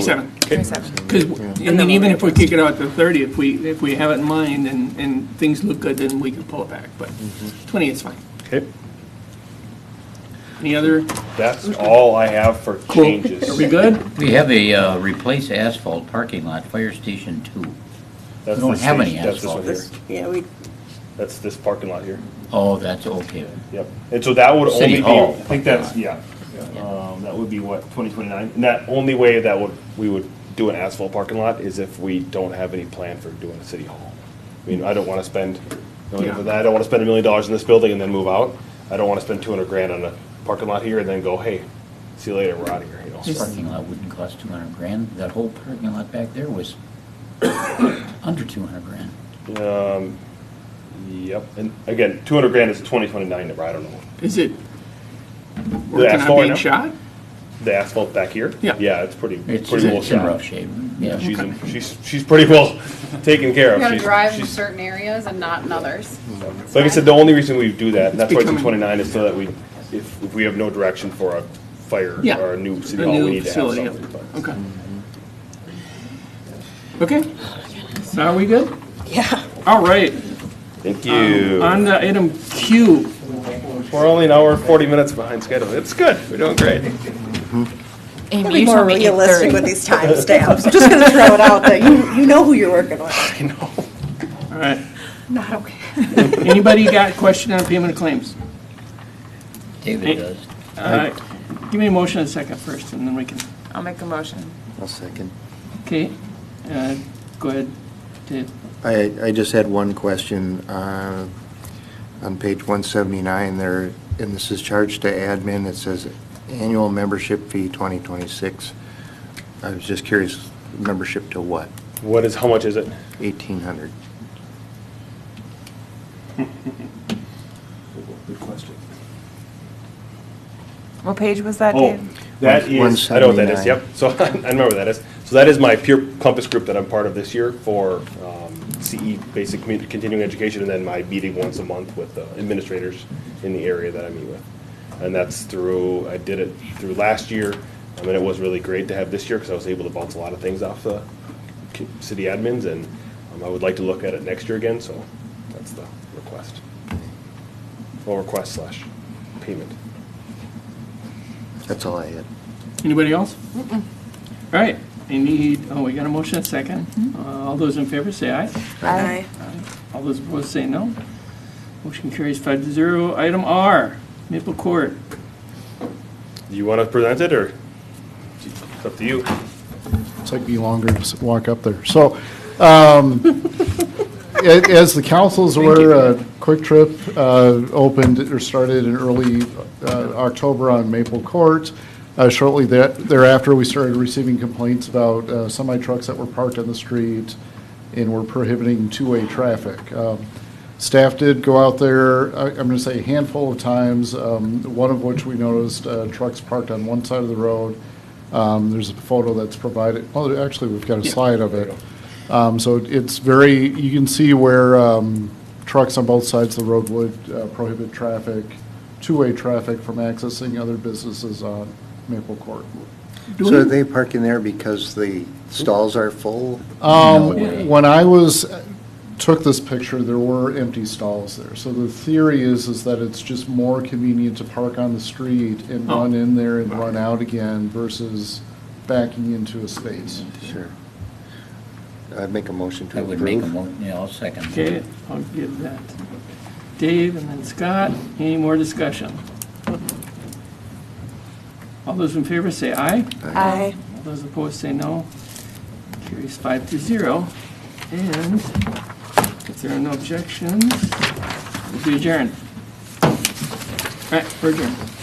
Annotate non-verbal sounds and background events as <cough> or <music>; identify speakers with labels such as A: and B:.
A: 27. Because, I mean, even if we kick it out to 30, if we, if we have it in mind and, and things look good, then we can pull it back, but
B: Mm-hmm.
A: 20 is fine.
B: Okay,
A: Any other,
B: that's all I have for
A: are
B: changes.
A: we good?
C: We have a uh, replace asphalt parking lot, fire station two.
B: That's
C: We don't
B: this
C: have
B: station-
C: any
B: that's this one
C: asphalt here.
B: here.
D: Yeah, we,
B: That's this parking lot here.
C: Oh, that's okay.
B: Yep. And so that would
C: City
B: only be, I
C: Hall.
B: think that's, yeah. Um, that would be what, twenty twenty-nine? And that only way that would, we would do an asphalt parking lot is if we don't have any plan for doing a city hall. I mean, I don't wanna spend, I
A: Yeah.
B: don't wanna spend a million dollars in this building and then move out. I don't wanna spend two hundred grand on a parking lot here and then go, hey, see you later, we're out of here, you know?
C: This parking lot wouldn't cost two hundred grand. That whole parking lot back there was <coughs> under two hundred grand.
B: Yep. And again, two hundred grand is twenty twenty-nine number, I don't know.
A: Is it working
B: asphalt
A: on being
B: now?
A: shot?
B: The asphalt back here?
A: Yeah.
B: Yeah, it's pretty,
C: It's,
B: pretty well
C: it's in
B: shot.
C: rough shape, yeah.
B: She's, in- she's, she's pretty well <laughs> taken care of.
E: You gotta
B: She's-
E: drive in
B: she's-
E: certain areas and not in others.
B: Like I said, the only reason we do that, and that's why it's in
A: becoming-
B: twenty-nine, is so that we, if, if we have no direction for a fire
A: Yeah.
B: or a new city
A: A
B: hall,
A: new
B: we need to have
A: facility, yeah.
B: something. but-
A: Okay. Okay, so are we good? Yeah. All right,
B: Thank you.
A: Um, on the item Q,
B: We're only an hour and forty minutes behind schedule. It's good. We're doing great.
D: gotta be more realistic with these timestamps. I'm <laughs> just gonna throw it out there. You, you know who you're working with.
B: I know.
A: all right.
E: Not okay.
A: Anybody got a question on payment of claims?
C: David does.
A: All right, give me a motion in a second first, and then we can,
E: I'll make a motion.
F: I'll second.
A: okay? uh, Go ahead, Uh, Dave.
F: I, I just had one question. uh, On page 179 there, and this is charged to admin, it says annual membership fee 2026. I was just curious, membership to what?
B: What is, how much is it?
F: 1,800?
B: Good question.
G: What page was that,
B: Oh,
G: Dave?
B: that is, I know what that is,
F: 179.
B: yep. So <laughs> I remember what that is. So that is my peer compass group that I'm part of this year for um, CE, basic commu- continuing education, and then my meeting once a month with the administrators in the area that I meet with. And that's through, I did it through last year, I mean, it was really great to have this year because I was able to bounce a lot of things off the c- city admins, and um, I would like to look at it next year again, so that's the request. Well, request slash payment.
F: That's all I had.
A: Anybody else? All right, I need, oh, we got a motion in a second. Uh, All those in favor say aye.
D: Aye.
A: All those opposed say no. Motion carries five to zero. Item R, Maple Court.
B: Do you want to present it, or it's up to you?
H: It's like be longer to s- walk up there. So, um, a- as the councils were, uh, Quick Trip uh, opened or started in early uh, October on Maple Court. Uh, Shortly that- thereafter, we started receiving complaints about uh, semi trucks that were parked on the street and were prohibiting two-way traffic. Um, Staff did go out there, I- I'm going to say a handful of times, um, one of which we noticed uh, trucks parked on one side of the road. Um, There's a photo that's provided, oh, actually, we've got a slide of it. Um, So it's very, you can see where um, trucks on both sides of the road would uh, prohibit traffic, two-way traffic from accessing other businesses on Maple Court.
F: So are they parking there because the stalls are full?
C: way.
H: Um, When I was, took this picture, there were empty stalls there. So the theory is, is that it's just more convenient to park on the street and
A: Oh.
H: run in there and run out again versus backing into a space.
F: Sure. I'd make a motion to
C: I would make a
F: approve.
C: mo, yeah, I'll second.
A: Okay, I'll give that. Dave and then Scott, any more discussion? All those in favor say aye.
D: Aye.
A: All those opposed say no. Carries five to zero. And if there are no objections, we'll be adjourned. All right, we're adjourned.